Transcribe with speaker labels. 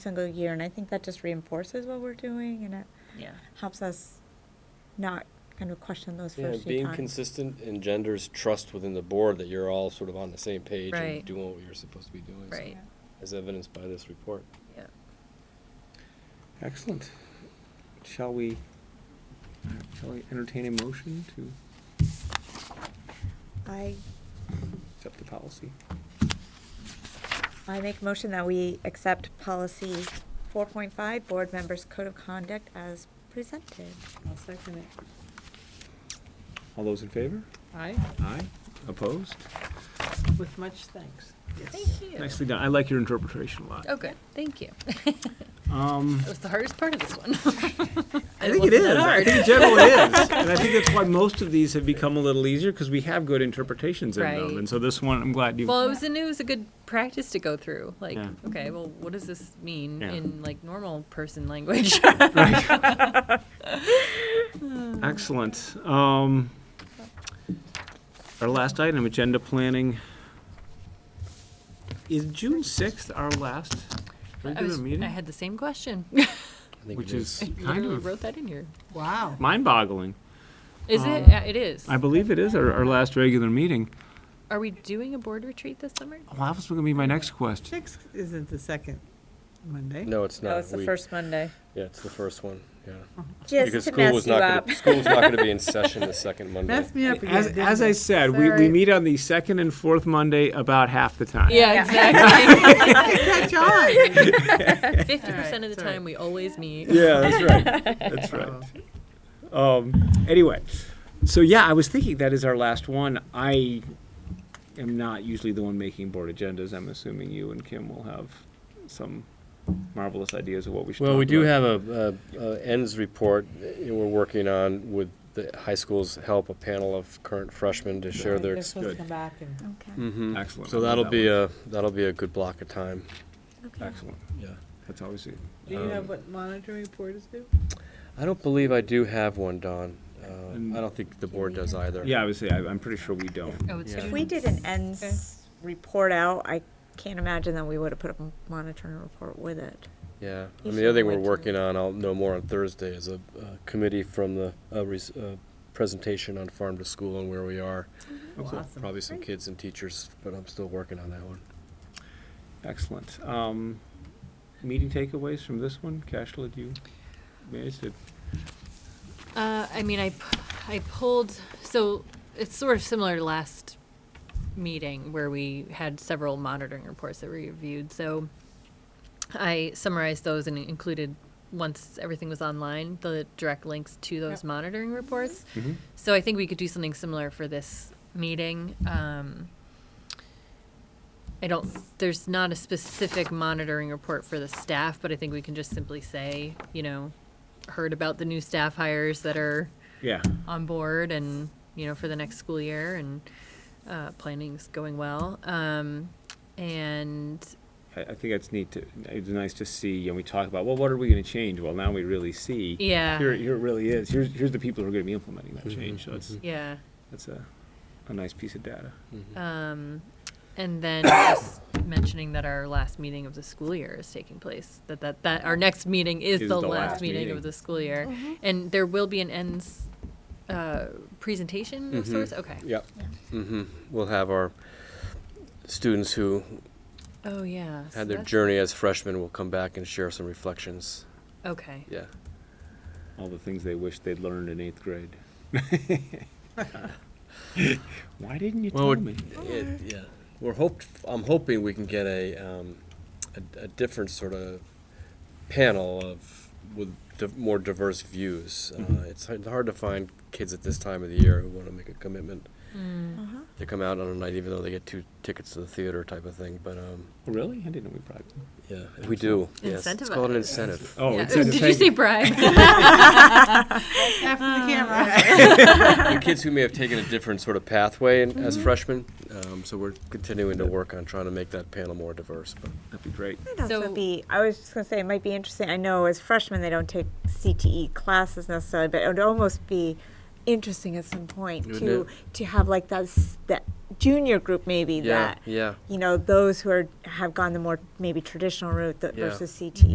Speaker 1: single year, and I think that just reinforces what we're doing, and it
Speaker 2: Yeah.
Speaker 1: helps us not kind of question those
Speaker 3: Yeah,
Speaker 1: first few
Speaker 3: being
Speaker 1: times.
Speaker 3: consistent engenders trust within the board that you're all sort of on the same page
Speaker 2: Right.
Speaker 3: and doing what you're supposed to be doing. so-
Speaker 2: Right.
Speaker 3: As evidenced by this report.
Speaker 2: Yeah.
Speaker 4: Excellent. Shall we, shall we entertain a motion to
Speaker 1: I,
Speaker 4: accept the policy?
Speaker 1: I make motion that we accept policy four point five, board members' code of conduct as presented.
Speaker 5: I'll second it.
Speaker 4: All those in favor?
Speaker 5: Aye,
Speaker 4: Aye. Opposed?
Speaker 5: with much thanks.
Speaker 2: Thank you.
Speaker 4: Nicely done. I like your interpretation a lot.
Speaker 2: Oh, good. Thank you.
Speaker 4: Um,
Speaker 2: Oh. That was the hardest part of this one.
Speaker 4: I think it is. I think it generally is. And I think that's why most of these have become a little easier because we have good interpretations in
Speaker 2: Right.
Speaker 4: them. And so this one, I'm glad you.
Speaker 2: Well, it was a new, it was a good practice to go through. Like,
Speaker 4: Yeah. Mm-hmm.
Speaker 2: okay, well, what does this mean
Speaker 4: Yeah.
Speaker 2: in like normal person language?
Speaker 4: Excellent. Um, our last item, agenda planning. Is June sixth our last
Speaker 2: I,
Speaker 4: regular
Speaker 2: was- I
Speaker 4: meeting?
Speaker 2: had the same question.
Speaker 3: I think
Speaker 4: Which
Speaker 3: it
Speaker 4: is kind
Speaker 2: Literally
Speaker 4: of
Speaker 2: wrote that in here.
Speaker 5: Wow.
Speaker 4: mind-boggling.
Speaker 2: Is
Speaker 4: Um,
Speaker 2: it? Yeah, it is.
Speaker 4: I believe it is our, our last regular meeting.
Speaker 2: Are we doing a board retreat this summer?
Speaker 4: Well, that was gonna be my next question.
Speaker 5: Six isn't the second Monday.
Speaker 3: No, it's not. We-
Speaker 1: Monday.
Speaker 3: Yeah, it's the first one, yeah. Because
Speaker 1: Just to
Speaker 3: school
Speaker 1: mess
Speaker 3: was
Speaker 1: you
Speaker 3: not
Speaker 1: up.
Speaker 3: gonna, school was not gonna be in session the second Monday.
Speaker 5: Messed me up again.
Speaker 4: As,
Speaker 5: didn't
Speaker 4: as I
Speaker 5: it?
Speaker 4: said, we, we
Speaker 5: Sorry.
Speaker 4: meet on the second and fourth Monday about half the time.
Speaker 2: Yeah, exactly.
Speaker 5: Catch on.
Speaker 2: Fifty percent
Speaker 5: Alright,
Speaker 2: of the
Speaker 5: sorry.
Speaker 2: time we always meet.
Speaker 4: Yeah, that's right. That's right. Um, anyway, so yeah, I was thinking that is our last one. I am not usually the one making board agendas. I'm assuming you and Kim will have some marvelous ideas of what we should.
Speaker 3: Well,
Speaker 4: talk
Speaker 3: we do
Speaker 4: about.
Speaker 3: have a, a, a ends report that we're working on with the high school's help, a panel of current freshmen to share their.
Speaker 5: They're supposed to come back and
Speaker 1: Okay,
Speaker 3: Mhm.
Speaker 4: Excellent.
Speaker 3: So
Speaker 4: I love
Speaker 3: that'll
Speaker 4: that
Speaker 3: be
Speaker 4: one.
Speaker 3: a, that'll be a good block of time.
Speaker 1: okay.
Speaker 4: Excellent.
Speaker 3: Yeah.
Speaker 4: That's always it.
Speaker 5: do you
Speaker 3: Um,
Speaker 5: have what monitoring report is due?
Speaker 3: I don't believe I do have one, Don. Uh,
Speaker 4: And-
Speaker 3: I don't think the board does either.
Speaker 4: Yeah, obviously, I, I'm pretty sure we don't.
Speaker 2: Oh, it's
Speaker 3: Yeah.
Speaker 1: If we did an ends report out, I can't imagine that we would have put a monitoring report with it.
Speaker 3: Yeah, I
Speaker 1: You
Speaker 3: mean, the other
Speaker 1: should
Speaker 3: thing we're
Speaker 1: wait till-
Speaker 3: working on, I'll know more on Thursday, is a, a committee from the, a res, a presentation on farm to school and where we are. So
Speaker 5: Awesome.
Speaker 3: Probably some
Speaker 1: Great.
Speaker 3: kids and teachers, but I'm still working on that one.
Speaker 4: Excellent. Um, meeting takeaways from this one, Cashla, do you manage to?
Speaker 2: Uh, I mean, I, p- I pulled, so it's sort of similar to last meeting where we had several monitoring reports that were reviewed. So I summarized those and included, once everything was online, the direct links to those
Speaker 5: Yep.
Speaker 2: monitoring reports.
Speaker 3: Mm-hmm.
Speaker 4: Mhm.
Speaker 2: So I think we could do something similar for this meeting. Um, I don't, there's not a specific monitoring report for the staff, but I think we can just simply say, you know, heard about the new staff hires that are
Speaker 4: Yeah.
Speaker 2: on board and, you know, for the next school year and uh, planning's going well. Um, and
Speaker 4: I, I think that's neat to, it's nice to see, and we talk about, well, what are we gonna change? Well, now we really see.
Speaker 2: Yeah.
Speaker 4: Here, here it really is. Here's, here's the people who are gonna be implementing
Speaker 3: Mm-hmm,
Speaker 4: that change, so it's,
Speaker 2: yeah.
Speaker 4: that's a, a nice piece of data.
Speaker 1: Mm-hmm.
Speaker 2: Um, and then just mentioning that our last meeting of the school year is taking place, that, that, that our next meeting is, the, last, meeting, of the school year. And there will be an ends uh, presentation of
Speaker 3: Mhm.
Speaker 2: sorts. Okay.
Speaker 3: Yep. Mm-hmm. We'll have our students who
Speaker 2: Oh, yeah. so
Speaker 3: had their
Speaker 2: that's-
Speaker 3: journey as freshmen will come back and share some reflections.
Speaker 2: Okay.
Speaker 3: Yeah.
Speaker 4: All the things they wish they'd learned in eighth grade. Why didn't you
Speaker 3: Well,
Speaker 4: tell
Speaker 3: it-
Speaker 4: me?
Speaker 3: it- yeah, we're hoped. I'm hoping we can get a um, a, a different sort of panel of with di- more diverse views. Uh,
Speaker 4: Mhm.
Speaker 3: it's hard, hard to find kids at this time of the year who want to make a commitment
Speaker 2: Mm.
Speaker 1: Uh-huh.
Speaker 3: to come out on a night, even though they get two tickets to the theater type of thing. But um,
Speaker 4: Oh, Really? I didn't know we bribed them.
Speaker 3: yeah, we do. Yes, it's called
Speaker 2: Incentivize.
Speaker 3: an incentive.
Speaker 4: Oh,
Speaker 2: Yeah.
Speaker 4: it's
Speaker 2: Did you say bribe?
Speaker 5: After
Speaker 4: Ah.
Speaker 5: the camera.
Speaker 3: Oh, the kids who may have taken a different sort of pathway in, as freshmen. Um, so we're continuing to work on trying to make that panel more diverse. But
Speaker 4: That'd be great.
Speaker 1: Might also
Speaker 2: So-
Speaker 1: be, I was just gonna say, it might be interesting, I know as freshmen, they don't take CTE classes necessarily, but it would almost be interesting at some point
Speaker 3: Wouldn't
Speaker 1: to,
Speaker 3: it?
Speaker 1: to have like that, s- that junior group maybe
Speaker 3: yeah,
Speaker 1: that,
Speaker 3: yeah.
Speaker 1: you know, those who are, have gone the more maybe traditional route that
Speaker 3: Yeah.
Speaker 1: versus E. CTE.